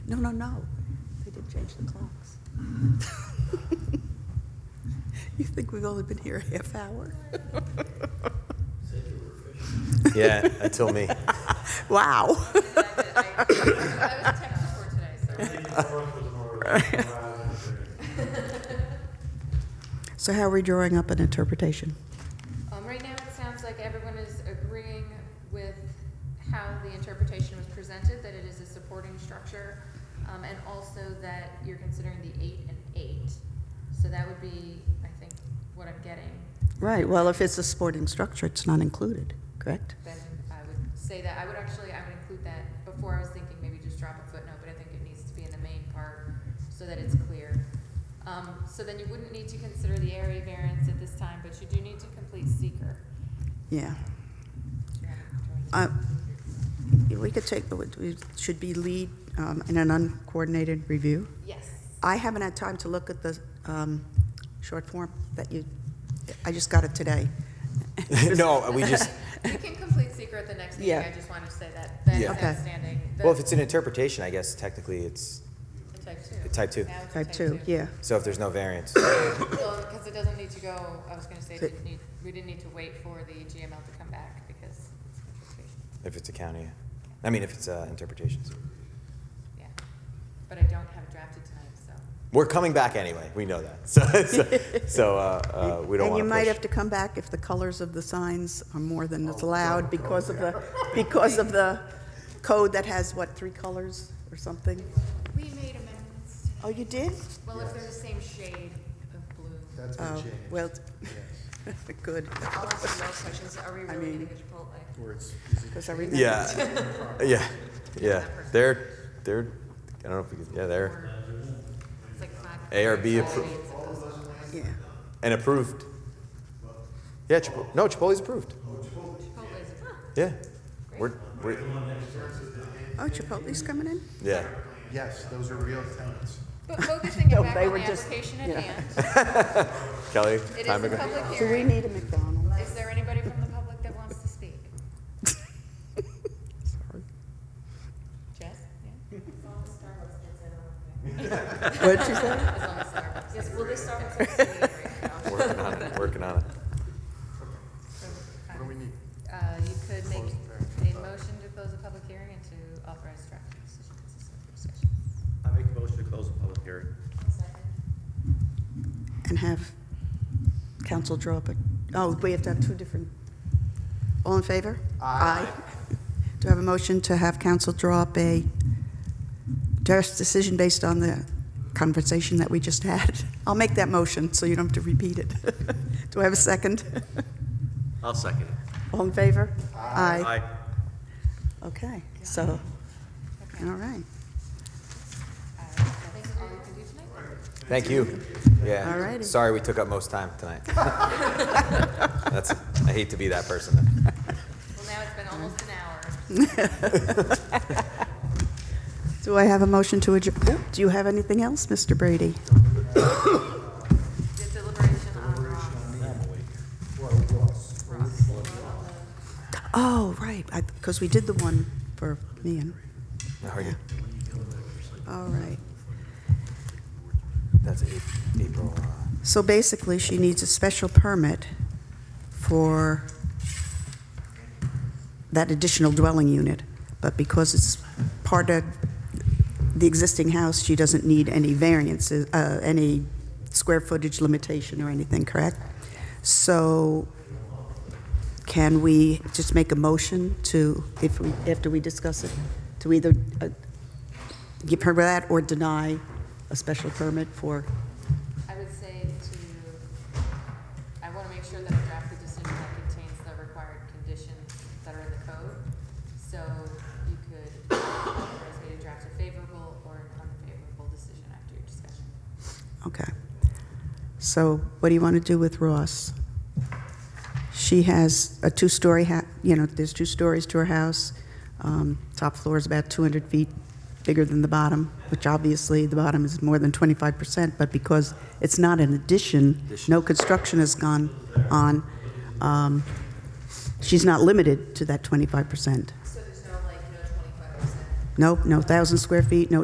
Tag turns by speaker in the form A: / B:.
A: No, no, no. They did change the clocks. You think we've only been here a half hour?
B: Yeah, until me.
A: Wow.
C: I was texted for today, so.
A: So how are we drawing up an interpretation?
C: Um, right now, it sounds like everyone is agreeing with how the interpretation was presented, that it is a supporting structure, um, and also that you're considering the eight and eight. So that would be, I think, what I'm getting.
A: Right, well, if it's a sporting structure, it's not included, correct?
C: Then I would say that, I would actually, I would include that, before I was thinking maybe just drop a footnote, but I think it needs to be in the main part so that it's clear. Um, so then you wouldn't need to consider the area variance at this time, but you do need to complete seeker.
A: Yeah. Uh, We could take, we should be lead um, in an uncoordinated review.
C: Yes.
A: I haven't had time to look at the um, short form that you, I just got it today.
B: No, we just,
C: You can complete secret at the next meeting,
A: Yeah.
C: I just wanted to say that, that is
B: Yeah.
A: Okay.
C: outstanding. The-
B: well, if it's an interpretation, I guess technically it's,
C: the Type two.
B: type two.
C: Now it's a
A: Type two, yeah.
B: so if there's no variance.
C: Well, because it doesn't need to go, I was gonna say, it
A: So-
C: didn't need, we didn't need to wait for the GML to come back because it's an interpretation,
B: If it's a county, I mean, if it's uh, interpretations.
C: yeah. But I don't have it drafted tonight, so.
B: We're coming back anyway, we know that. So, so- so uh, uh, we don't
A: And you
B: want to
A: might have
B: push. Oh,
A: to come back if the colors of the signs are more than is allowed because of the, because of the code that has, what, three colors or something?
C: We made amendments
A: Oh, you did?
C: Well, if they're the same shade of blue.
D: That's been
A: Oh,
D: changed.
A: well, good,
C: I'll ask you those questions, are we really gonna go Chipotle?
D: Where it's, is it
A: because I remember.
B: Yeah, yeah, yeah. They're, they're, I don't know if we could, yeah, they're,
C: It's like five.
B: ARB
C: all
B: appro-
C: shades of those.
A: Yeah,
B: and approved. Yeah, Chipotle, no, Chipotle's approved.
C: Chipotle is-
B: Yeah. We're, we're,
A: oh, Chipotle's coming in?
B: yeah.
D: yes, those are real tenants.
C: But focusing it
A: No,
C: back
A: they
C: on
A: were
C: the
A: just-
C: application
A: yeah.
C: at hand,
B: Kelly,
C: it is
B: time to
C: a
B: go.
C: public
A: So we
C: hearing.
A: need a McDonald's.
C: Is there anybody from the public that wants to speak? Jess? Yeah?
A: What'd you say?
C: As long as Starbucks. Yes, well, this Starbucks is sitting right now.
B: Working on it, working on it.
C: So,
D: What do we need?
C: Uh, you could make
D: Close the
C: a motion to close the public hearing and to authorize draft decision consistent with discussion.
E: I make a motion to close the public hearing.
A: And have council draw up a, oh, we have to have two different, all in favor?
D: Aye.
A: Do I have a motion to have council draw up a just decision based on the conversation that we just had? I'll make that motion, so you don't have to repeat it. Do I have a second?
E: I'll second it.
A: All in favor?
E: Aye.
A: Okay, so,
C: Okay.
A: all right,
C: Uh, That's all you can do tonight?
B: Thank you. Yeah.
A: Alrighty.
B: Sorry we took up most time tonight. That's, I hate to be that person.
C: Well, now it's been almost an hour.
A: do I have a motion to adjourn? Oh, Do you have anything else, Mr. Brady?
C: Did deliberation on Ross. Ross.
A: Oh, right, because we did the one for me and,
B: How are you?
A: all right.
B: That's A- April. uh,
A: So basically, she needs a special permit for that additional dwelling unit, but because it's part of the existing house, she doesn't need any variances, uh, any square footage limitation or anything, correct? So can we just make a motion to, if we, after we discuss it, to either uh, give her that or deny a special permit for
C: I would say to, I want to make sure that I draft the decision that contains the required conditions that are in the code. So you could authorize me to draft a favorable or an unfavorable decision after your discussion.
A: Okay. So what do you want to do with Ross? She has a two-story, ha- you know, there's two stories to her house. Um, Top floor is about 200 feet bigger than the bottom, which obviously the bottom is more than 25%, but because it's not an addition, no construction has gone on, um, she's not limited to that 25%.
C: So there's no like, no twenty-five percent
A: Nope, no 1,000 square feet, no